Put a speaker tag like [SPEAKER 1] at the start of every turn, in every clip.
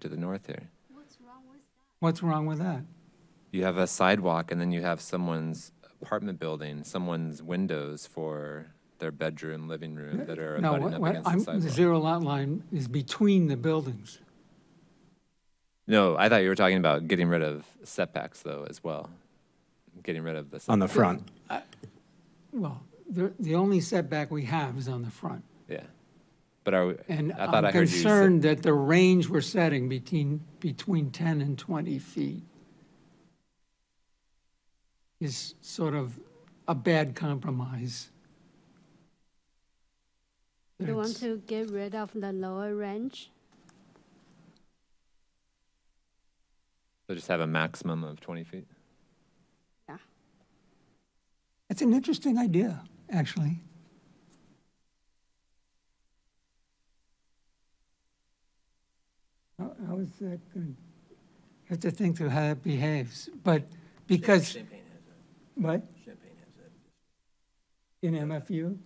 [SPEAKER 1] to the north here.
[SPEAKER 2] What's wrong with that?
[SPEAKER 1] You have a sidewalk, and then you have someone's apartment building, someone's windows for their bedroom, living room that are
[SPEAKER 2] No,
[SPEAKER 1] abutting
[SPEAKER 2] what-
[SPEAKER 1] up
[SPEAKER 2] what-
[SPEAKER 1] against the
[SPEAKER 2] I'm-
[SPEAKER 1] sidewalk.
[SPEAKER 2] the zero lot line is between the buildings.
[SPEAKER 1] No, I thought you were talking about getting rid of setbacks though as well, getting rid of the
[SPEAKER 3] on
[SPEAKER 1] setback.
[SPEAKER 3] the front.
[SPEAKER 2] Well, the, the only setback we have is on the front.
[SPEAKER 1] yeah. But are we,
[SPEAKER 2] And
[SPEAKER 1] I thought
[SPEAKER 2] I'm
[SPEAKER 1] I heard you
[SPEAKER 2] concerned that the range we're setting between, between 10 and 20 feet is sort of a bad compromise.
[SPEAKER 4] You want
[SPEAKER 2] It's-
[SPEAKER 4] to get rid of the lower range?
[SPEAKER 1] say, so just have a maximum of 20 feet.
[SPEAKER 4] Yeah.
[SPEAKER 2] It's an interesting idea, actually. How how is that going? I have to think through how that behaves, but because. Champagne has that. What? Champagne has that. In MFU?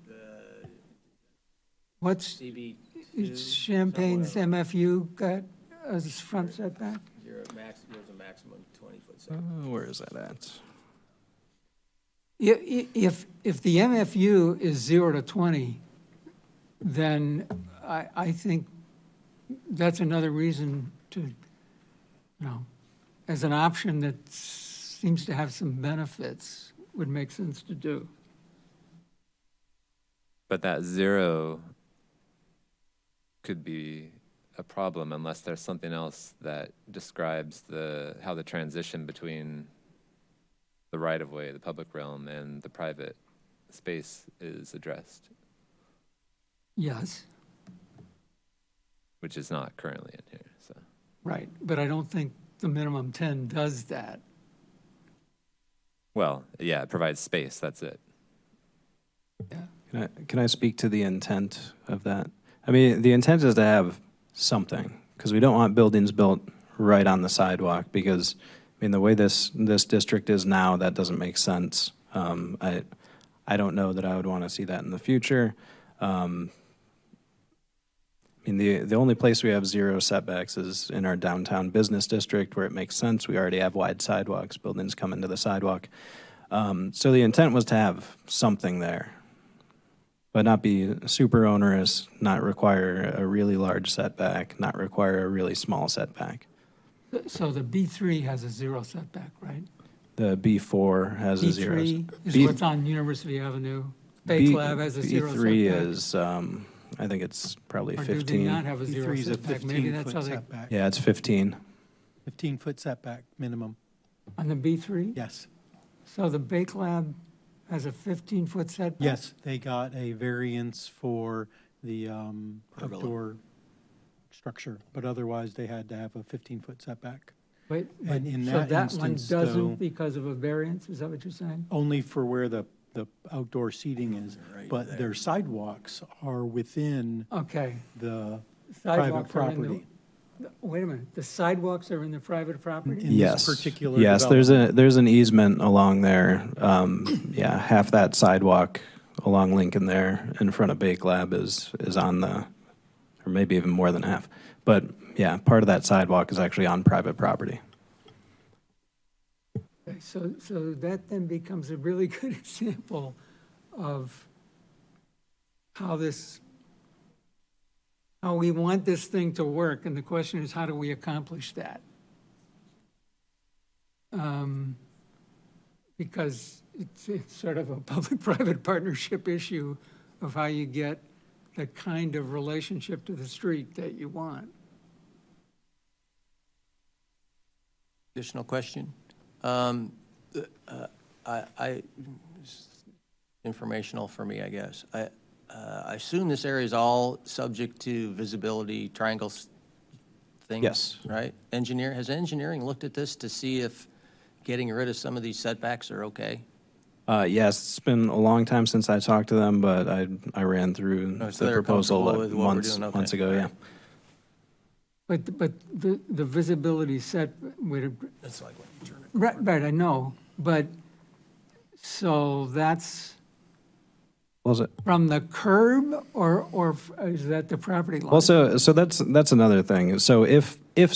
[SPEAKER 2] What's,
[SPEAKER 5] CB
[SPEAKER 2] it's
[SPEAKER 5] two,
[SPEAKER 2] Champagne's
[SPEAKER 5] somewhere.
[SPEAKER 2] MFU got a front setback?
[SPEAKER 5] You're at max, there's a maximum twenty-foot
[SPEAKER 3] Uh,
[SPEAKER 5] setback.
[SPEAKER 3] Where is that at?
[SPEAKER 2] I- i- If, if the MFU is zero to 20, then I, I think that's another reason to, you know, as an option that seems to have some benefits, would make sense to do.
[SPEAKER 1] But that zero could be a problem unless there's something else that describes the how the transition between the right of way, the public realm, and the private space is addressed,
[SPEAKER 2] Yes,
[SPEAKER 1] which is not currently in here. So
[SPEAKER 2] right, but I don't think the minimum 10 does that.
[SPEAKER 1] well, yeah, it provides space. That's it.
[SPEAKER 3] Can I, can I speak to the intent of that? I mean, the intent is to have something, because we don't want buildings built right on the sidewalk, because, I mean, the way this, this district is now, that doesn't make sense. Um, I, I don't know that I would want to see that in the future. Um, I mean, the, the only place we have zero setbacks is in our downtown business district where it makes sense. We already have wide sidewalks, buildings come into the sidewalk. Um, so the intent was to have something there but not be super onerous, not require a really large setback, not require a really small setback.
[SPEAKER 2] So the B3 has a zero setback, right?
[SPEAKER 3] The B4 has a zero.
[SPEAKER 2] B3 is
[SPEAKER 3] B-
[SPEAKER 2] what's on University Avenue. Bay
[SPEAKER 3] B-
[SPEAKER 2] Lab has a zero setback.
[SPEAKER 3] B3 is, um, I think it's probably
[SPEAKER 2] Or do they not
[SPEAKER 3] 15.
[SPEAKER 2] have a zero
[SPEAKER 6] E3 is a
[SPEAKER 2] setback? Maybe that's how
[SPEAKER 6] 15-foot
[SPEAKER 2] they,
[SPEAKER 6] setback,
[SPEAKER 3] Yeah, it's 15.
[SPEAKER 6] 15-foot setback minimum,
[SPEAKER 2] on the B3?
[SPEAKER 6] yes.
[SPEAKER 2] So the Bake Lab has a 15-foot setback?
[SPEAKER 6] Yes, they got a variance for the um, outdoor structure, but otherwise they had to have a 15-foot setback,
[SPEAKER 2] But, but,
[SPEAKER 6] And in
[SPEAKER 2] so
[SPEAKER 6] that
[SPEAKER 2] that one
[SPEAKER 6] instance, though-
[SPEAKER 2] doesn't because of a variance, is that what you're saying?
[SPEAKER 6] only for where the, the outdoor seating is. But their sidewalks are within
[SPEAKER 2] Okay.
[SPEAKER 6] the private
[SPEAKER 2] Uh, Sidewalks are in the-
[SPEAKER 6] property.
[SPEAKER 2] Wait a minute, the sidewalks are in the private property?
[SPEAKER 6] In this
[SPEAKER 3] Yes.
[SPEAKER 6] particular
[SPEAKER 3] Yes, there's a, there's an easement along there. Um, Yeah, half that sidewalk along Lincoln there in front of Bake Lab is, is on the, or maybe even more than half. But yeah, part of that sidewalk is actually on private property.
[SPEAKER 2] Okay, So, so that then becomes a really good example of how this, how we want this thing to work, and the question is, how do we accomplish that? Um, Because it's, it's sort of a public-private partnership issue of how you get the kind of relationship to the street that you want.
[SPEAKER 7] Additional question? Um, uh, I, I, informational for me, I guess. I, uh, I assume this area is all subject to visibility triangles things?
[SPEAKER 3] Yes.
[SPEAKER 7] Right? Engineer, has engineering looked at this to see if getting rid of some of these setbacks are okay?
[SPEAKER 3] Uh, yes, it's been a long time since I talked to them, but I, I ran through
[SPEAKER 7] Oh, so
[SPEAKER 3] the
[SPEAKER 7] they're
[SPEAKER 3] proposal
[SPEAKER 7] comfortable with what we're
[SPEAKER 3] months,
[SPEAKER 7] doing, okay.
[SPEAKER 3] months ago, yeah.
[SPEAKER 2] But, but the, the visibility set, would ag-
[SPEAKER 7] That's like what you turn it.
[SPEAKER 2] Right, right, I know, but, so that's
[SPEAKER 3] Was it?
[SPEAKER 2] from the curb, or, or f- is that the property line?
[SPEAKER 3] Also, so that's, that's another thing. So if, if